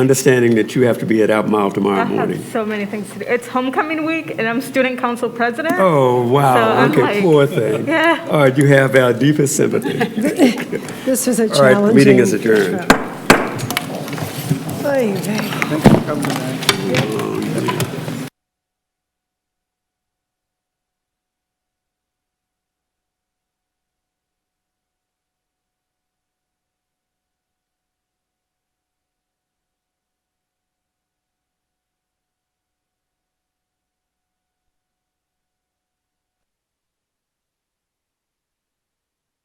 understanding that you have to be at Albemarle tomorrow I have morning. so many things to do. It's homecoming week, and I'm student council president. Oh, wow, So I'm okay, like- poor thing. Yeah. All right, you have our deepest sympathy. This was a All challenging. right, meeting is adjourned. Oy vey. Thanks for coming tonight. Oh,